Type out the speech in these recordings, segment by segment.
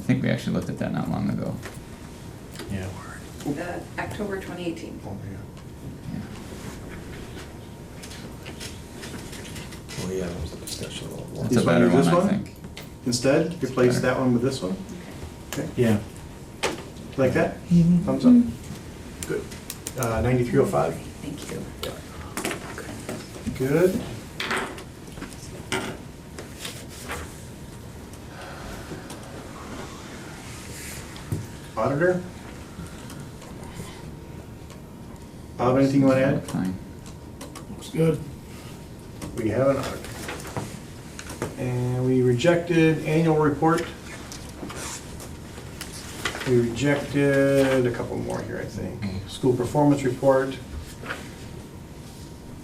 think we actually looked at that not long ago. Yeah. Uh, October 2018. Oh, yeah, that was a discussion a That's little long. a This one, better this one, I one? think. Instead, replace Better. that one with this one, Yeah. like that? Thumbs up. Good. Uh, ninety-three oh five? Thank you. Good. Auditor? Bob, anything you want to add? Fine. Looks good. We have an auditor. And we rejected annual report. We rejected a couple more here, I think. School performance report.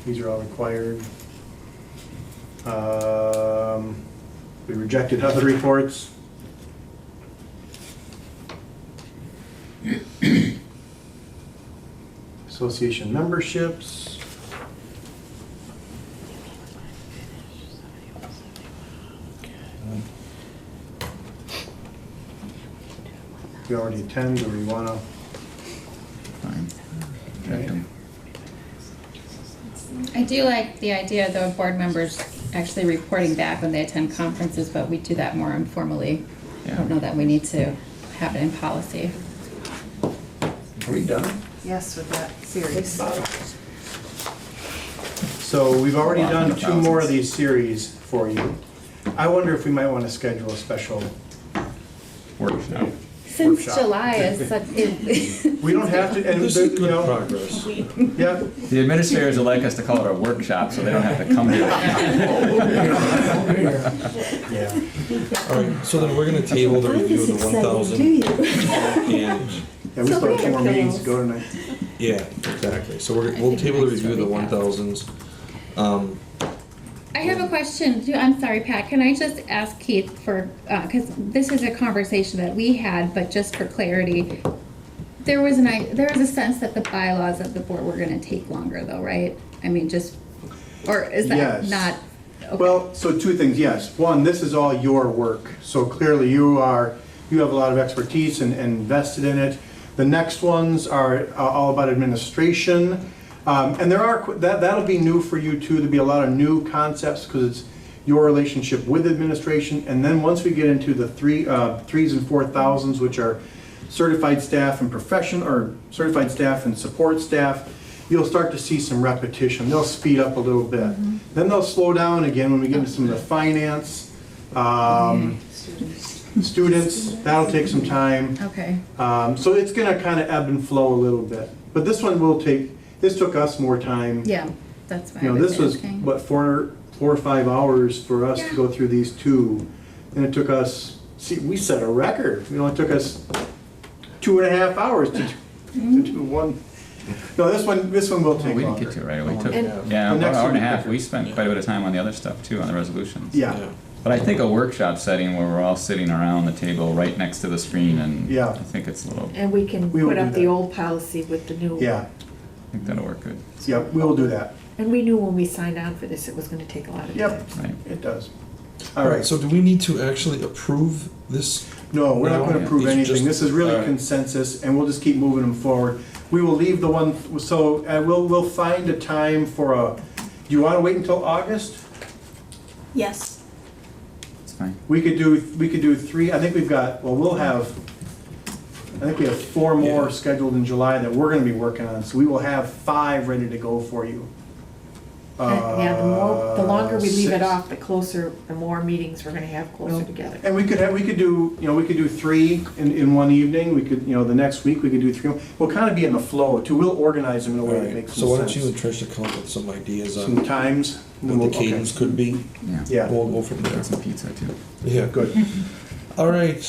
These are all required. Um, We rejected other reports. Association memberships. We already attend, or we want to? Fine. Okay. I do like the idea, though, of board members actually reporting back when they attend conferences, but we do that more informally. I don't know Yeah. that we need to have it in policy. Are we done? Yes, with that series. So we've already Wow, done two more of thousands. these series for you. I wonder if we might want to schedule a special, Workshop. Since Workshop. July is such, it- we don't have to, and, there- you know, progress. yeah, The administrators would like us to call it a workshop, so they don't have to come to it. yeah. All right, so then we're gonna table the review of the one thousand and, Yeah, we still have two more meetings to go tonight. yeah, exactly. So we're, we'll I think table the mine's review of the really one fast. thousands. Um, I have a question. Do- I'm sorry, Pat. Can I just ask Keith for, because this is a conversation that we had, but just for clarity, there was an, i- there was a sense that the bylaws of the board were going to take longer, though, right? I mean, just, or is that Yes. not? okay. Well, so two things, yes. One, this is all your work, so clearly you are, you have a lot of expertise and and invested in it. The next ones are uh, all about administration. Um, And there are, qu- that, that'll be new for you too, there'll be a lot of new concepts because it's your relationship with administration. And then once we get into the three, uh, threes and four thousands, which are certified staff and profession, or certified staff and support staff, you'll start to see some repetition. They'll speed up a little bit. Then they'll slow down again when we get into some of the finance, um, students, that'll take some time. Okay. Um, So it's gonna kind of ebb and flow a little bit. But this one will take, this took us more time. Yeah, that's why You I know, this was, was asking. what, four, four or five hours for us to Yeah. go through these two. And it took us, see, we set a record. You know, it took us two and a half hours to, do- to do one. No, this one, this one will Well, take we didn't get to it longer. right away. We took, And- yeah, The about an next hour and a one- half. We spent quite a bit of time on the other stuff too, on the resolutions. Yeah, But I think a workshop setting where we're all sitting around the table right next to the screen and Yeah. I think it's a little, I And we can We will put do up the that. old policy with the new one. yeah, think that'll work good, yeah, we'll do that. And we knew when we signed on for this, it was gonna take a lot of time. Yep. right? It does. all right, so do we need to actually approve this? No, we're not No, gonna approve it's anything, just- this is really all right. consensus, and we'll just keep moving them forward. We will leave the one, so, uh we'll, we'll find a time for a, do you wanna wait until August? Yes. It's fine. We could do, we could do three, I think we've got, well, we'll have, I think we have four more Yeah. scheduled in July that we're gonna be working on, so we will have five ready to go for you. And- Uh, Yeah, the more, the longer we leave it Uh, six. off, the closer, the more meetings we're gonna have closer together. And we could have, we could do, you know, we could do three in, in one evening, we could, you know, the next week, we could do three. We'll kind of be in the flow too, we'll organize them in a All way that right, makes so why some don't you and sense. Tricia come up with some ideas Some on times. and then what we'll- the okay. cadence could be? Yeah. Yeah. We'll go from there. Get some pizza too. Yeah, good. All right,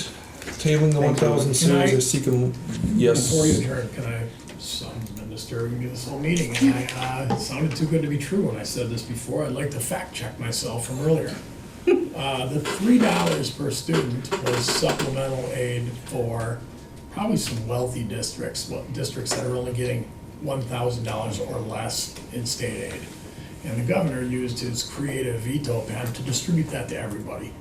tabling the one Thank you. thousand Can I- series, I seek a, yes. Before you adjourn, can I, someone's been disturbing me this whole meeting, and I, uh, it sounded too good to be true when I said this before, I'd like to fact check myself from earlier. Uh, the three dollars per student was supplemental aid for probably some wealthy districts, what- districts that are only getting one thousand dollars or less in state aid. And the governor used his creative veto pen to distribute that to everybody.